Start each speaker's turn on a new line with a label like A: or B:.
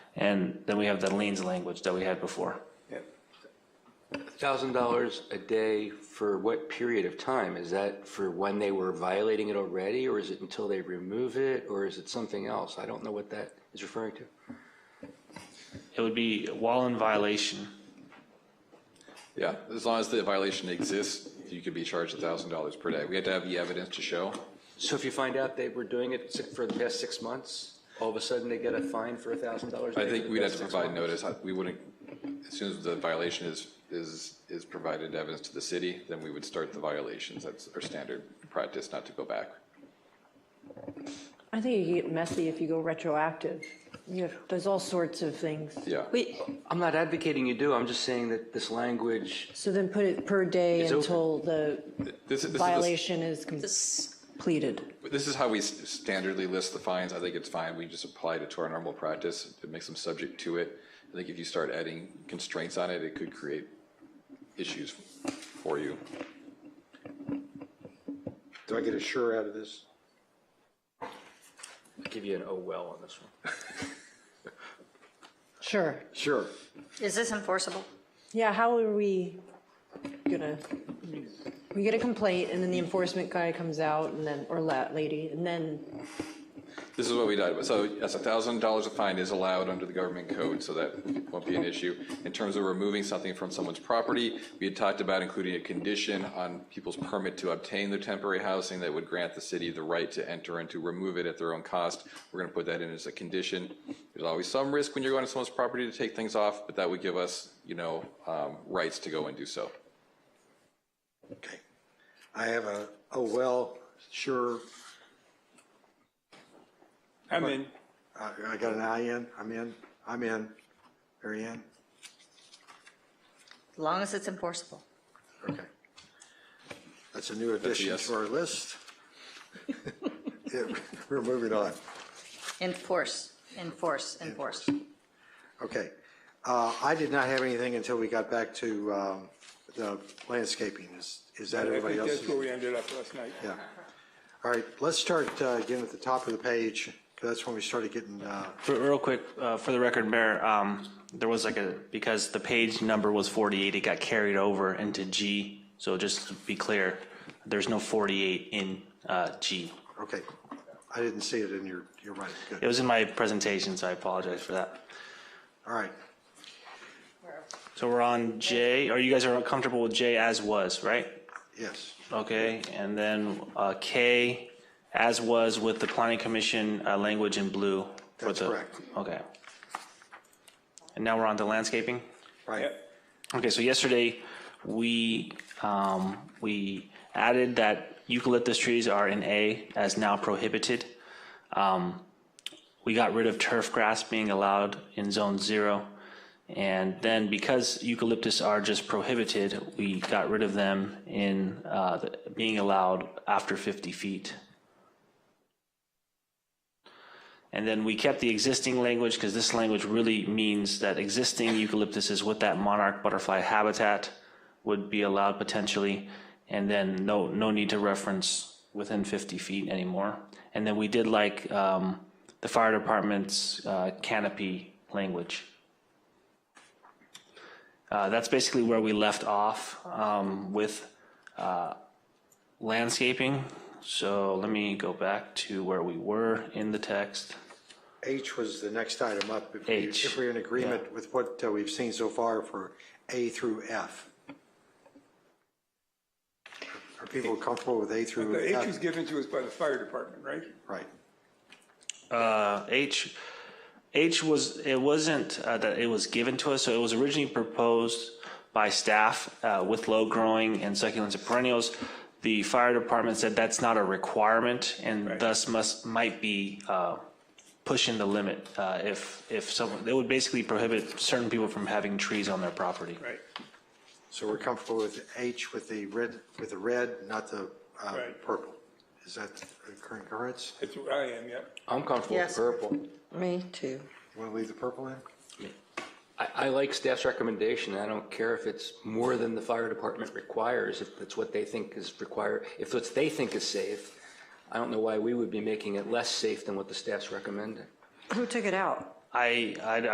A: And then we have the liens language that we had before.
B: $1,000 a day for what period of time? Is that for when they were violating it already, or is it until they remove it, or is it something else? I don't know what that is referring to.
A: It would be while in violation.
C: Yeah, as long as the violation exists, you could be charged $1,000 per day. We had to have the evidence to show.
B: So if you find out they were doing it si- for the past six months, all of a sudden they get a fine for $1,000 a day?
C: I
B: for
C: think
B: the
C: we'd have
B: past
C: to
B: six
C: provide
B: months?
C: notice. I- We wouldn't, as soon as the violation is, is, is provided evidence to the city, then we would start the violations. That's our standard practice, not to go back.
D: I think you get messy if you go retroactive. You have, there's all sorts of things.
C: Yeah.
B: Wait, I'm not advocating you do, I'm just saying that this language,
D: So then put it per day
B: It's open.
D: until the
C: This is, this is,
D: violation is completed.
C: this is how we s- standardly list the fines. I think it's fine. We just applied it to our normal practice. It makes them subject to it. I think if you start adding constraints on it, it could create issues for you.
E: Do I get a sure out of this?
B: I'll give you an oh well on this one.
D: Sure.
E: Sure.
F: Is this enforceable?
D: Yeah, how are we gonna, we get a complaint and then the enforcement guy comes out and then, or la lady, and then,
C: This is what we did. So yes, a thousand dollars a fine is allowed under the government code, so that won't be an issue. In terms of removing something from someone's property, we had talked about including a condition on people's permit to obtain their temporary housing that would grant the city the right to enter and to remove it at their own cost. We're gonna put that in as a condition. There's always some risk when you're going to someone's property to take things off, but that would give us, you know, um, rights to go and do so.
E: Okay. I have a, oh, well, sure.
G: I'm in.
E: I I got an I in, I'm in, I'm in. Mary Ann?
F: As long as it's enforceable.
E: Okay. That's a new addition
C: yes.
E: to our list. Yeah, We're moving on.
F: Enforce, enforce, enforce.
E: Okay. Uh, I did not have anything until we got back to um, the landscaping. Is, is that
G: I
E: everybody
G: think
E: else?
G: that's where we ended up last night.
E: Yeah. All right, let's start uh, again at the top of the page, 'cause that's when we started getting, uh,
A: For- Real quick, uh, for the record, Mayor, um, there was like a, because the page number was 48, it got carried over into G. So just to be clear, there's no 48 in uh, G.
E: okay. I didn't see it in your, you're right,
A: It
E: good.
A: was in my presentation, so I apologize for that.
E: All right.
A: So we're on J, or you guys are comfortable with J as was, right?
E: Yes,
A: Okay, and then uh, K, as was with the planning commission uh, language in blue. for
E: That's
A: the-
E: correct.
A: Okay. And now we're on to landscaping?
E: right.
G: Yep.
A: Okay, so yesterday, we, um, we added that eucalyptus trees are in A as now prohibited. Um, we got rid of turf grass being allowed in zone zero. And then because eucalyptus are just prohibited, we got rid of them in, uh, the- being allowed after fifty feet. And then we kept the existing language because this language really means that existing eucalyptuses with that monarch butterfly habitat would be allowed potentially. And then no, no need to reference within 50 feet anymore. And then we did like um, the fire department's uh, canopy language. Uh, That's basically where we left off um, with uh, landscaping. So let me go back to where we were in the text.
E: H was the next item up. If we-
A: H,
E: If we're in agreement with what uh, we've seen so far for A through F. Are people comfortable with A through
G: The H was
E: F?
G: given to us by the fire department, right?
E: Right.
A: Uh, H, H was, it wasn't uh, that it was given to us, so it was originally proposed by staff uh, with low growing and succulents and perennials. The fire department said that's not a requirement and thus must, might be uh, pushing the limit. uh, If, if someone, it would basically prohibit certain people from having trees on their property.
G: Right,
E: So we're comfortable with H with the red, with the red, not the uh,
G: Right.
E: purple. Is that the current occurrence?
G: that's where I am, yep.
B: I'm comfortable with
F: Yes.
B: purple.
D: me too.
E: Want to leave the purple in?
B: I, I like staff's recommendation. I don't care if it's more than the fire department requires, if that's what they think is required, if what they think is safe. I don't know why we would be making it less safe than what the staff's recommending.
D: Who took it out?
A: I, I